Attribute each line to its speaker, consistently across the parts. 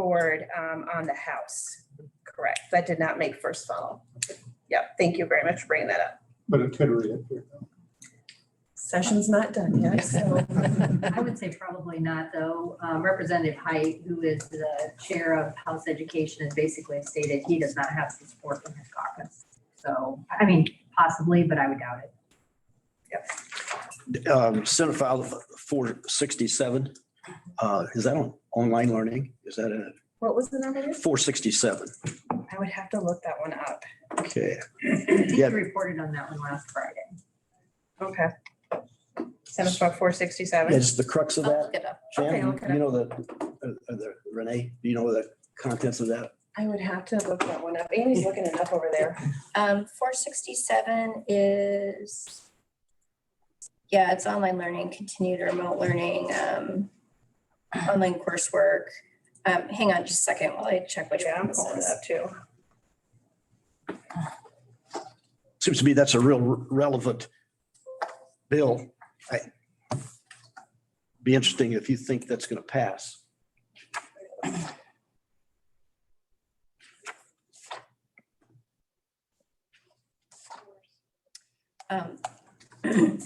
Speaker 1: forward um, on the house. Correct. That did not make first funnel. Yep. Thank you very much for bringing that up.
Speaker 2: But it could read it here. though.
Speaker 1: Session's not done yet, so.
Speaker 3: I would say probably not, though. Um, Representative Height, who is the chair of House Education, has basically stated he does not have the support from his caucus. So, I mean, possibly, but I would doubt it.
Speaker 4: um, Senate File 467. Uh, Is that on online learning? Is that a
Speaker 1: What was the number?
Speaker 4: 467?
Speaker 1: I would have to look that one up.
Speaker 4: Okay.
Speaker 3: I think
Speaker 4: Yeah.
Speaker 3: you reported on that one last Friday.
Speaker 1: Okay. Senate Bill four sixty-seven.
Speaker 4: It's the crux of
Speaker 1: I'll
Speaker 4: that.
Speaker 1: look it up. Okay, I'll
Speaker 4: Jan,
Speaker 1: look it
Speaker 4: you
Speaker 1: up.
Speaker 4: know the, uh, uh, the Renee, do you know the contents of that?
Speaker 1: I would have to look that one up. Amy's looking it up over there.
Speaker 5: Um, four sixty-seven is, yeah, it's online learning, continued remote learning, um, online coursework. Um, hang on just a second while I check which
Speaker 1: Yeah,
Speaker 5: one
Speaker 1: I'm
Speaker 5: this
Speaker 1: pulling it
Speaker 5: is.
Speaker 1: up too.
Speaker 4: Seems to me that's a real relevant bill. I- Be interesting if you think that's going to pass.
Speaker 5: Um,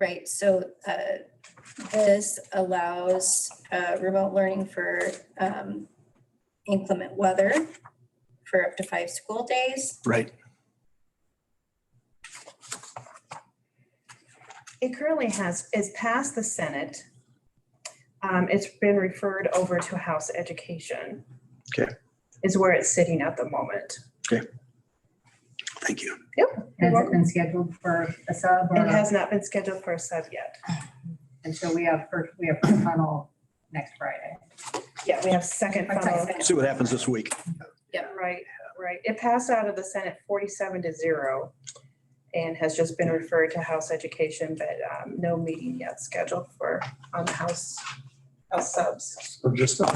Speaker 5: Right, so uh, this allows uh, remote learning for um, inclement weather for up to five school days.
Speaker 4: Right.
Speaker 1: It currently has, is passed the Senate. Um, it's been referred over to House Education.
Speaker 4: Okay.
Speaker 1: Is where it's sitting at the moment.
Speaker 4: Thank you.
Speaker 3: Has it been scheduled for a sub
Speaker 1: It
Speaker 3: or,
Speaker 1: has not been scheduled for a sub yet.
Speaker 3: and so we have, first we have first funnel next Friday.
Speaker 1: Yeah, we have second
Speaker 3: Okay.
Speaker 1: funnel.
Speaker 4: See what happens this week.
Speaker 1: Right, right. It passed out of the Senate forty-seven to zero and has just been referred to House Education, but um, no meeting yet scheduled for on the House, House subs.
Speaker 2: So just a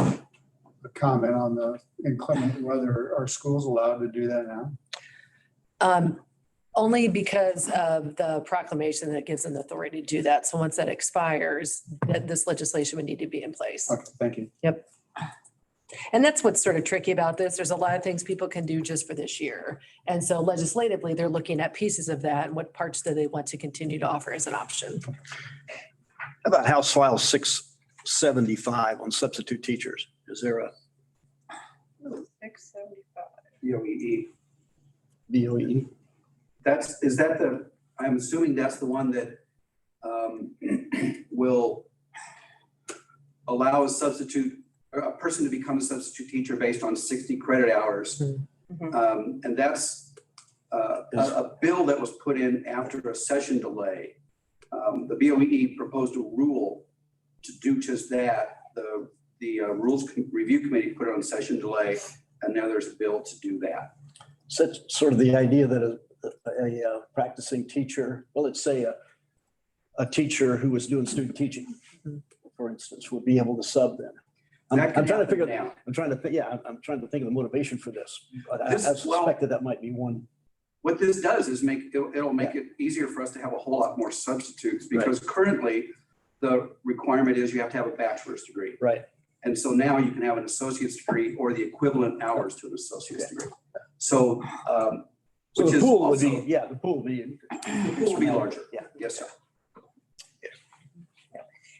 Speaker 2: a comment on the inclement weather. Are schools allowed to do that now?
Speaker 6: Um, Only because of the proclamation that gives them the authority to do that. So once that expires, that this legislation would need to be in place.
Speaker 2: Okay, thank you.
Speaker 6: And that's what's sort of tricky about this. There's a lot of things people can do just for this year. And so legislatively, they're looking at pieces of that and what parts do they want to continue to offer as an option.
Speaker 4: How about House File 675 on substitute teachers? Is there a
Speaker 1: Six seventy-five.
Speaker 7: EOEE.
Speaker 4: DOE?
Speaker 7: E. That's, is that the, I'm assuming that's the one that um, will allow a substitute, or a person to become a substitute teacher based on 60 credit hours.
Speaker 1: Mhm.
Speaker 7: Um, And that's uh, a
Speaker 4: Yes.
Speaker 7: a bill that was put in after a session delay. Um, The BOE proposed a rule to do just that. The, the uh, Rules Com- Review Committee put it on session delay, and now there's a bill to do that.
Speaker 4: Such sort of the idea that a, a uh, practicing teacher, well, let's say a, a teacher who was doing student teaching, for instance, would be able to sub then. I'm,
Speaker 7: Mm-hmm. That could
Speaker 4: I'm trying to
Speaker 7: happen
Speaker 4: figure,
Speaker 7: now.
Speaker 4: I'm trying to, thi- yeah, I'm, I'm trying to think of the motivation for this. But I I
Speaker 7: This- well-
Speaker 4: suspected that might be one.
Speaker 7: What this does is make, it'll, it'll make it easier for us to have a whole lot more substitutes because currently the requirement is you have to have a bachelor's degree.
Speaker 4: Right.
Speaker 7: And so now you can have an associate's degree or the equivalent hours to an associate's degree. So, um,
Speaker 4: So
Speaker 7: which
Speaker 4: the
Speaker 7: is
Speaker 4: pool would
Speaker 7: also,
Speaker 4: be, yeah, the pool would be.
Speaker 7: the pool will be larger.
Speaker 4: Yeah.
Speaker 7: Yes, sir.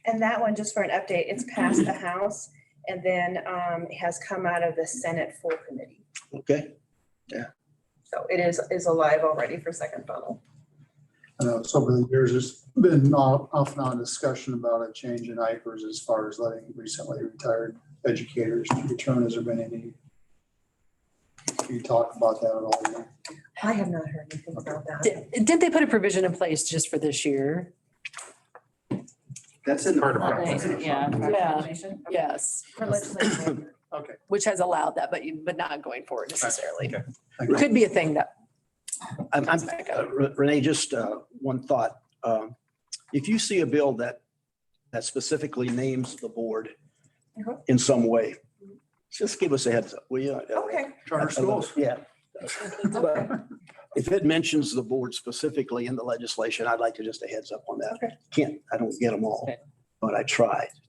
Speaker 1: And that one, just for an update, it's passed the House and then um, has come out of the Senate full committee.
Speaker 4: Okay.
Speaker 1: So it is, is alive already for second funnel.
Speaker 2: I know, so over the years, there's been off off and on discussion about a change in IFRS as far as letting recently retired educators return. Has there been any? Can you talk about that at all?
Speaker 1: I have not heard anything about that.
Speaker 6: Did- Didn't they put a provision in place just for this year?
Speaker 7: That's in the.
Speaker 8: Part of
Speaker 7: that's in the-
Speaker 6: Yeah, yes,
Speaker 1: For legislation.
Speaker 2: Okay.
Speaker 6: which has allowed that, but you, but not going forward necessarily.
Speaker 2: Thank you.
Speaker 6: Could be a thing that
Speaker 4: I'm, I'm,
Speaker 6: comes back up.
Speaker 4: Uh, Re- Renee, just uh, one thought. Um, If you see a bill that, that specifically names the board
Speaker 1: Mhm.
Speaker 4: in some way, just give us a heads up, will you?
Speaker 1: Okay,
Speaker 4: Charter schools. Yeah. But If it mentions the board specifically in the legislation, I'd like to just a heads up on that.
Speaker 1: Okay.
Speaker 4: Can't, I don't get them all,
Speaker 8: Okay.
Speaker 4: but I try.